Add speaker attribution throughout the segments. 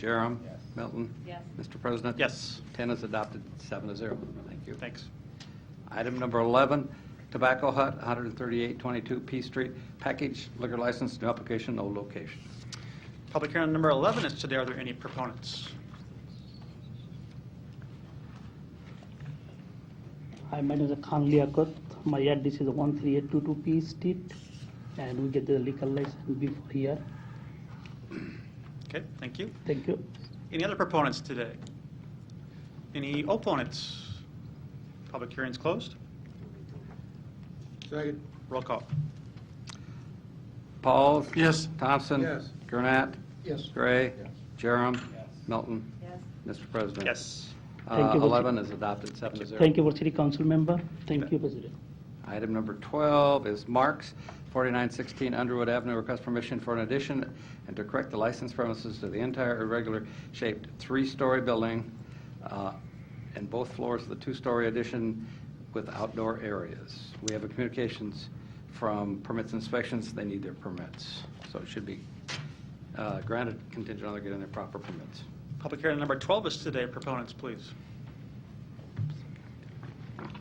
Speaker 1: Jerem.
Speaker 2: Yes.
Speaker 1: Milton.
Speaker 3: Yes.
Speaker 1: Mr. President.
Speaker 4: Yes.
Speaker 1: 10 is adopted, seven to zero. Thank you.
Speaker 4: Thanks.
Speaker 1: Item number 11, Tobacco Hut, 13822 P Street, package liquor license, new application, no location.
Speaker 4: Public hearing on number 11 is today. Are there any proponents?
Speaker 5: Hi, my name is Khanli Akut. My address is 13822 P Street, and we get the liquor license before here.
Speaker 4: Okay, thank you.
Speaker 5: Thank you.
Speaker 4: Any other proponents today? Any opponents? Public hearing's closed.
Speaker 2: Second.
Speaker 4: Roll call.
Speaker 1: Pauls.
Speaker 4: Yes.
Speaker 1: Thompson.
Speaker 2: Yes.
Speaker 1: Gurnett.
Speaker 2: Yes.
Speaker 1: Gray.
Speaker 2: Yes.
Speaker 1: Jerem.
Speaker 2: Yes.
Speaker 1: Milton.
Speaker 3: Yes.
Speaker 1: Mr. President.
Speaker 4: Yes.
Speaker 1: Uh,
Speaker 5: Thank you, Mr.
Speaker 1: 11 is adopted, seven to zero.
Speaker 5: Thank you for city council member. Thank you, President.
Speaker 1: Item number 12 is Marks, 4916 Underwood Avenue, request permission for an addition and to correct the licensed premises to the entire irregular-shaped three-story building uh, and both floors of the two-story addition with outdoor areas. We have a communications from permits inspections, they need their permits. So it should be uh, granted contingent on they getting their proper permits.
Speaker 4: Public hearing on number 12 is today. Proponents, please.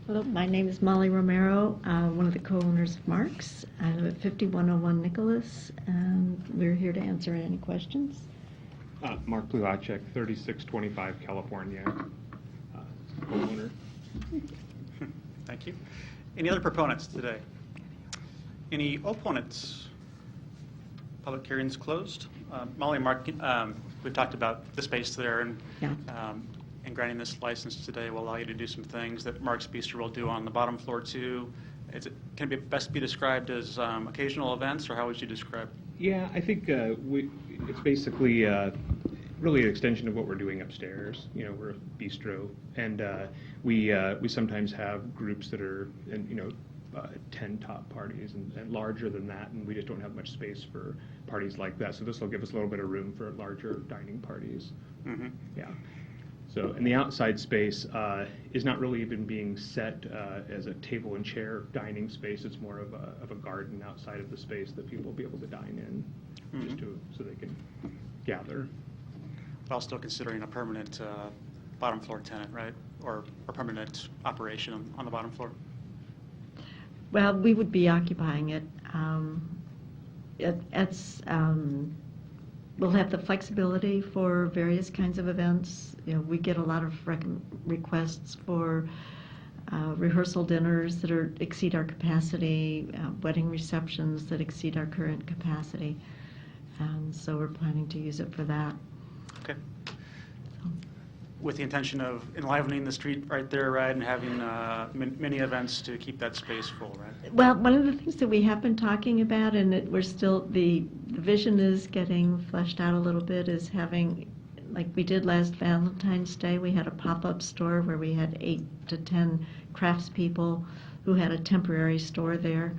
Speaker 6: Hello, my name is Molly Romero, uh, one of the co-owners of Marks. I live at 5101 Nicholas, and we're here to answer any questions.
Speaker 7: Uh, Mark Blulacek, 3625 California, uh, homeowner.
Speaker 4: Thank you. Any other proponents today? Any opponents? Public hearing's closed. Uh, Molly and Mark, um, we've talked about the space there and,
Speaker 6: Yeah.
Speaker 4: um, and granting this license today will allow you to do some things that Mark's Bistro will do on the bottom floor too. Is it, can it be, best be described as um, occasional events or how would you describe?
Speaker 7: Yeah, I think uh, we, it's basically uh, really an extension of what we're doing upstairs. You know, we're a bistro, and uh, we uh, we sometimes have groups that are, and you know, uh, ten top parties and, and larger than that, and we just don't have much space for parties like that. So this will give us a little bit of room for larger dining parties.
Speaker 4: Mhm.
Speaker 7: Yeah. So, and the outside space uh, is not really even being set uh, as a table and chair dining space. It's more of a, of a garden outside of the space that people will be able to dine in,
Speaker 4: Mhm.
Speaker 7: just to, so they can gather.
Speaker 4: While still considering a permanent uh, bottom floor tenant, right? Or a permanent operation on- on the bottom floor?
Speaker 6: Well, we would be occupying it. um, it- It's, um, we'll have the flexibility for various kinds of events. You know, we get a lot of rec- requests for uh, rehearsal dinners that are, exceed our capacity, uh, wedding receptions that exceed our current capacity. And so we're planning to use it for that.
Speaker 4: Okay. With the intention of enlivening the street right there, right, and having uh, min- many events to keep that space full, right?
Speaker 6: Well, one of the things that we have been talking about, and that we're still, the, the vision is getting fleshed out a little bit, is having, like we did last Valentine's Day, we had a pop-up store where we had eight to 10 craftspeople who had a temporary store there,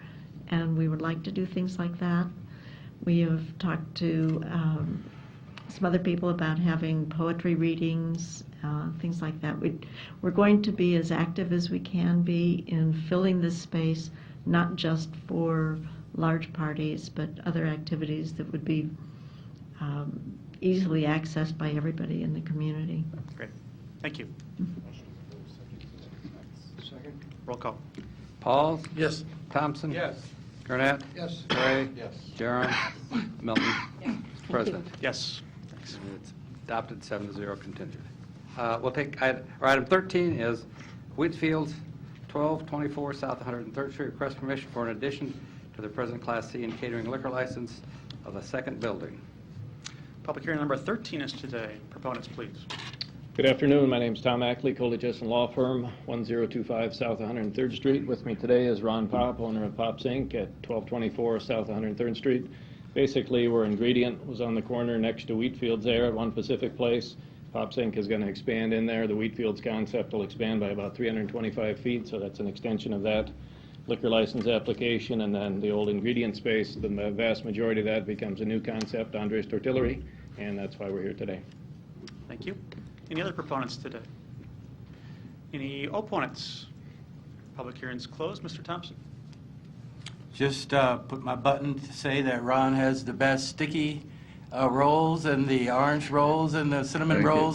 Speaker 6: and we would like to do things like that. We have talked to um, some other people about having poetry readings, uh, things like that. We, we're going to be as active as we can be in filling this space, not just for large parties, but other activities that would be um, easily accessed by everybody in the community.
Speaker 4: Great. Thank you.
Speaker 2: Second.
Speaker 4: Roll call.
Speaker 1: Pauls. Yes. Thompson.
Speaker 2: Yes.
Speaker 1: Gurnett.
Speaker 2: Yes.
Speaker 1: Gray.
Speaker 2: Yes.
Speaker 1: Jerem. Milton.
Speaker 3: Yes.
Speaker 1: Mr. President.
Speaker 4: Yes.
Speaker 1: It's adopted seven to zero contingent. Uh, We'll take, i- or item 13 is Whitfields, 1224 South 103rd Street, request permission for an addition to the present Class C and catering liquor license of a second building.
Speaker 4: Public hearing number 13 is today. Proponents, please.
Speaker 8: Good afternoon. My name's Tom Ackley, Coley Justin Law Firm, 1025 South 103rd Street. With me today is Ron Pop, owner of Pop's Inc. at 1224 South 103rd Street. Basically, where Ingredient was on the corner next to Wheatfields there at One Pacific Place, Pop's Inc. is going to expand in there. The Wheatfields concept will expand by about 325 feet, so that's an extension of that liquor license application. And then the old Ingredient space, the ma- vast majority of that becomes a new concept, Andres Tortillery, and that's why we're here today.
Speaker 4: Thank you. Any other proponents today? Any opponents? Public hearing's closed. Mr. Thompson?
Speaker 9: Just uh, put my button to say that Ron has the best sticky
Speaker 8: uh, rolls and the orange rolls and the cinnamon rolls